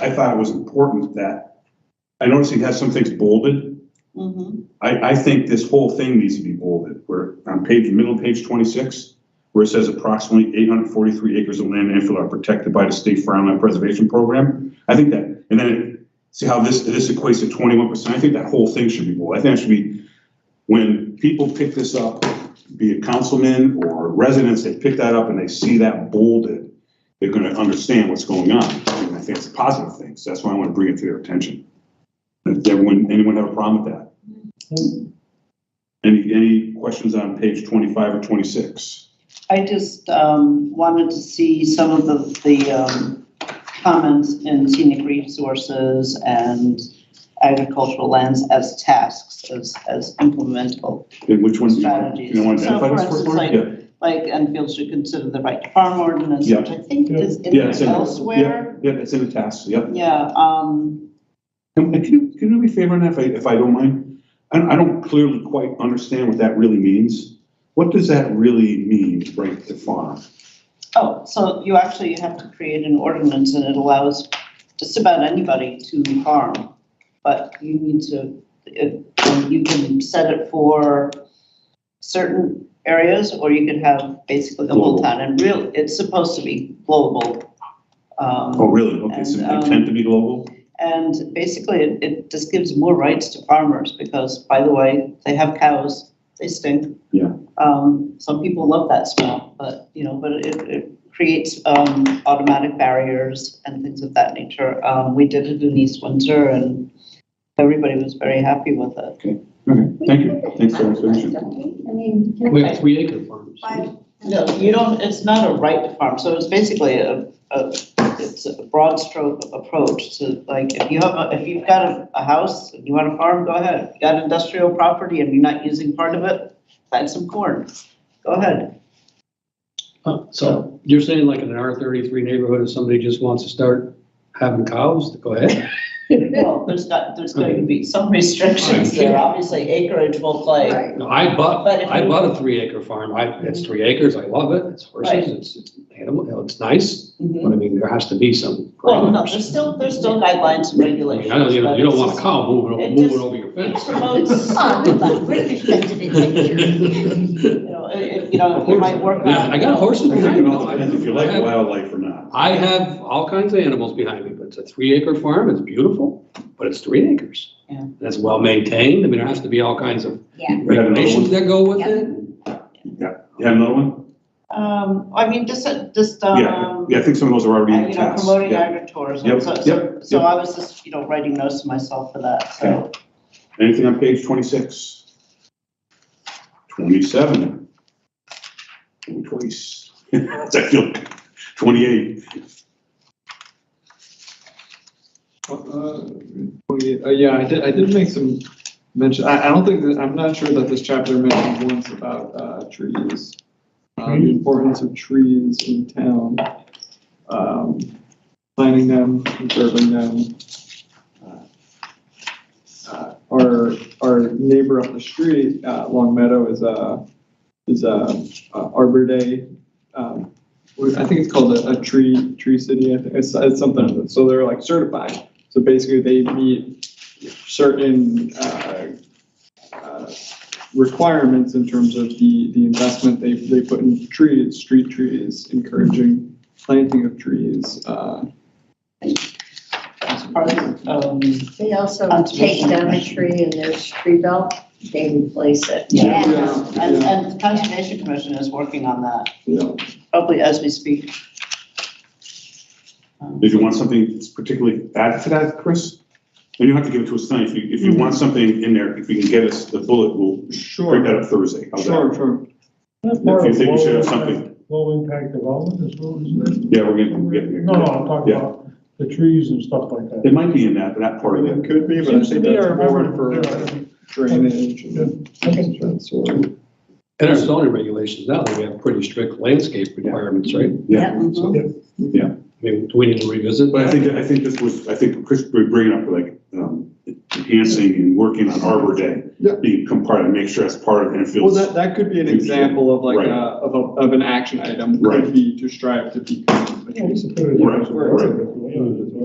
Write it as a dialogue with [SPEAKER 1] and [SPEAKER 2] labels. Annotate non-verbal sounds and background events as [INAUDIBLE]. [SPEAKER 1] I thought it was important that, I noticed he has some things bolded.
[SPEAKER 2] Mhm.
[SPEAKER 1] I, I think this whole thing needs to be bolded, where on page, middle of page twenty-six, where it says approximately eight hundred forty-three acres of land in Enfield are protected by the state farmland preservation program. I think that, and then, it- see how this, this equates to twenty-one percent, I think that whole thing should be bold, I think that should be, when people pick this up, be it councilmen or residents, they pick that up and they see that bolded, they're gonna understand what's going on, and I think it's a positive thing, so that's why I wanna bring it to their attention. Does everyone, anyone have a problem with that? Any, any questions on page twenty-five or twenty-six?
[SPEAKER 2] I just um, wanted to see some of the, the um, comments in scenic resources and agricultural lands as tasks, as, as implementable.
[SPEAKER 1] And which ones do you want, do
[SPEAKER 2] Strategies.
[SPEAKER 1] you want to
[SPEAKER 2] So,
[SPEAKER 1] identify
[SPEAKER 2] for
[SPEAKER 1] this first one?
[SPEAKER 2] instance, like-
[SPEAKER 1] Yeah,
[SPEAKER 2] Like Enfield should consider the right to farm ordinance,
[SPEAKER 1] Yeah.
[SPEAKER 2] which I think is in
[SPEAKER 1] yeah, it's
[SPEAKER 2] there
[SPEAKER 1] in,
[SPEAKER 2] elsewhere.
[SPEAKER 1] yeah, yeah, it's in the task, yeah.
[SPEAKER 2] Yeah, um,
[SPEAKER 1] Can, can you, can you do me a favor on that, if I, if I don't mind? I, don't- I don't clearly quite understand what that really means. What does that really mean, right to farm?
[SPEAKER 2] oh, so you actually have to create an ordinance and it allows just about anybody to farm. But you need to, it- you can set it for certain areas or you could have basically the whole
[SPEAKER 1] Global.
[SPEAKER 2] town. And real, it's supposed to be global. um,
[SPEAKER 1] Oh, really? Okay, so
[SPEAKER 2] And,
[SPEAKER 1] they
[SPEAKER 2] um,
[SPEAKER 1] tend to be global?
[SPEAKER 2] And basically, it, it just gives more rights to farmers because, by the way, they have cows, they stink.
[SPEAKER 1] Yeah.
[SPEAKER 2] Um, some people love that smell, but, you know, but it, it creates, um, automatic barriers and things of that nature. Um, we did it in East Windsor and everybody was very happy with it.
[SPEAKER 1] Okay, thank you, thanks for the explanation.
[SPEAKER 3] I mean, can
[SPEAKER 4] We
[SPEAKER 3] I
[SPEAKER 4] have three acre farms.
[SPEAKER 3] buy-
[SPEAKER 2] No, you don't, it's not a right to farm, so it's basically a, a, it's a broad stroke approach to, like, if you have, a- if you've got a, a house, and you want to farm, go ahead. If you Got industrial property and you're not using part of it, plant some corn, go ahead.
[SPEAKER 4] Uh, So you're saying like in an R thirty-three neighborhood, if somebody just wants to start having cows, go ahead.
[SPEAKER 2] Well, there's got, there's going to be some restrictions
[SPEAKER 4] Right.
[SPEAKER 2] there, obviously acreage will play.
[SPEAKER 3] Right.
[SPEAKER 4] No, I bought,
[SPEAKER 2] But if
[SPEAKER 4] I
[SPEAKER 2] you-
[SPEAKER 4] bought a three acre farm. I, it's three acres. I love it. It's
[SPEAKER 2] Right.
[SPEAKER 4] horses, it's it's animal, you know, it's nice.
[SPEAKER 2] Mhm.
[SPEAKER 4] But I mean, there has to be some.
[SPEAKER 2] Well, no,
[SPEAKER 4] parameters.
[SPEAKER 2] there's still, there's still guidelines and
[SPEAKER 4] I mean,
[SPEAKER 2] regulations.
[SPEAKER 4] I don't, you know,
[SPEAKER 2] but
[SPEAKER 4] you don't
[SPEAKER 2] it's
[SPEAKER 4] want a
[SPEAKER 2] just-
[SPEAKER 4] cow moving,
[SPEAKER 2] it
[SPEAKER 4] moving
[SPEAKER 2] just-
[SPEAKER 4] over your
[SPEAKER 2] It
[SPEAKER 4] fence. [LAUGHS]
[SPEAKER 2] promotes, [LAUGHS]
[SPEAKER 3] Oh, we love, we're the best of it.
[SPEAKER 2] you know, it, it- you know, it might work.
[SPEAKER 4] Yeah, I got horses
[SPEAKER 1] I think
[SPEAKER 4] behind
[SPEAKER 1] it
[SPEAKER 4] me.
[SPEAKER 1] all depends if you like
[SPEAKER 4] I have-
[SPEAKER 1] wildlife or not.
[SPEAKER 4] I have all kinds of animals behind me, but it's a three acre farm, it's beautiful, but it's three acres.
[SPEAKER 2] Yeah.
[SPEAKER 4] That's well maintained, I mean, there has to be all kinds of
[SPEAKER 3] Yeah,
[SPEAKER 1] We got another
[SPEAKER 4] regulations
[SPEAKER 1] one?
[SPEAKER 4] that go with
[SPEAKER 3] Yeah.
[SPEAKER 4] it.
[SPEAKER 1] You have another one?
[SPEAKER 2] Um, I mean, just, uh, just,
[SPEAKER 1] Yeah,
[SPEAKER 2] um,
[SPEAKER 1] yeah, I think some of those are already in
[SPEAKER 2] and,
[SPEAKER 1] the
[SPEAKER 2] you know,
[SPEAKER 1] task.
[SPEAKER 2] promoting
[SPEAKER 1] yeah.
[SPEAKER 2] agritourism,
[SPEAKER 1] Yep,
[SPEAKER 2] so, so,
[SPEAKER 1] yep,
[SPEAKER 2] so
[SPEAKER 1] yep.
[SPEAKER 2] I was just, you know, writing notes to myself for that, so.
[SPEAKER 1] Anything on page twenty-six? Twenty-seven? Ooh, Twice. [LAUGHS] I feel, twenty-eight.
[SPEAKER 5] Uh, we- uh, Yeah, I did, I did make some mention, I, I don't think, that I'm not sure that this chapter mentioned once about, uh, trees. Uh, the importance of trees in town, um, planting them, conserving them. Uh, Our, our neighbor up the street, uh, Long Meadow is a, is a uh, Arbor Day, um, what- I think it's called a, a tree, tree city, I think, it's, it's something, so they're like certified. So basically, they meet certain uh, uh, requirements in terms of the, the investment they, they put in trees, street trees, encouraging planting of trees. uh,
[SPEAKER 2] Part of, um,
[SPEAKER 6] They also take
[SPEAKER 2] Conservation
[SPEAKER 6] down a
[SPEAKER 2] Commission.
[SPEAKER 6] tree and there's tree belt, they replace it.
[SPEAKER 2] Yeah.
[SPEAKER 5] Yeah.
[SPEAKER 2] and, and the Conservation Commission is working on that,
[SPEAKER 5] You know,
[SPEAKER 2] probably as we speak. Um,
[SPEAKER 1] Did you want something particularly added to that, Chris? And you don't have to give it to us tonight. If you, if you
[SPEAKER 7] Mm-hmm.
[SPEAKER 1] want something in there, if we can get us the bullet, we'll bring that
[SPEAKER 5] Sure,
[SPEAKER 1] up Thursday. How's that?
[SPEAKER 5] sure, sure.
[SPEAKER 7] That's
[SPEAKER 1] If
[SPEAKER 7] more
[SPEAKER 1] you
[SPEAKER 7] of
[SPEAKER 1] think we should have
[SPEAKER 7] low
[SPEAKER 1] something,
[SPEAKER 7] impact- Low impact development as well, isn't it?
[SPEAKER 1] yeah, we're gonna get there.
[SPEAKER 7] No, no, I'm talking
[SPEAKER 1] Yeah.
[SPEAKER 7] about the trees and stuff like that.
[SPEAKER 1] It might be in that, that part of it.
[SPEAKER 5] could be,
[SPEAKER 7] Seems to me I remember
[SPEAKER 5] For drainage and that sort of.
[SPEAKER 4] In our zoning regulations now, we have pretty strict landscape requirements, right?
[SPEAKER 1] Yeah.
[SPEAKER 2] mhm.
[SPEAKER 4] I mean, do we need to revisit?
[SPEAKER 1] But I
[SPEAKER 4] that?
[SPEAKER 1] think, I think this was, I think Chris was bringing up like, um, enhancing and working on Arbor Day.
[SPEAKER 5] Yeah.
[SPEAKER 1] Being part of, make sure that's part of
[SPEAKER 5] Well,
[SPEAKER 1] Enfield's.
[SPEAKER 5] that, that could be an
[SPEAKER 1] Future.
[SPEAKER 5] example of like
[SPEAKER 1] Right.
[SPEAKER 5] a, of a, of an action item,
[SPEAKER 1] Right.
[SPEAKER 5] could be to strive to become a
[SPEAKER 7] Yeah, you should put it in
[SPEAKER 1] Right,
[SPEAKER 7] as well.
[SPEAKER 1] right.
[SPEAKER 7] Yeah, it's-